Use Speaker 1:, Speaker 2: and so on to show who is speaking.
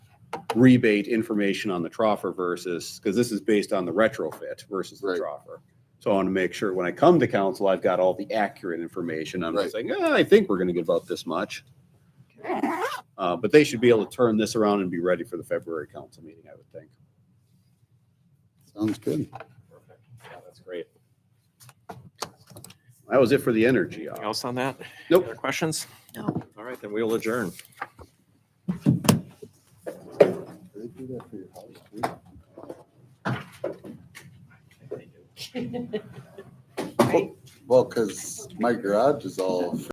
Speaker 1: rebate information on the troffer versus, because this is based on the retrofit versus the
Speaker 2: Right.
Speaker 1: troffer. So I want to make sure when I come to council, I've got all the accurate information. I'm
Speaker 2: Right.
Speaker 1: just saying, "Ah, I think we're going to give out this much. Uh, But they should be able to turn this around and be ready for the February council meeting, I would think.
Speaker 2: Sounds good.
Speaker 1: Yeah, That's great. That was it for the energy.
Speaker 3: Anything else on that?
Speaker 1: Nope.
Speaker 3: Other questions?
Speaker 4: No.
Speaker 3: All right, then we'll adjourn.
Speaker 2: They do that for your house, too? Well, because my garage is all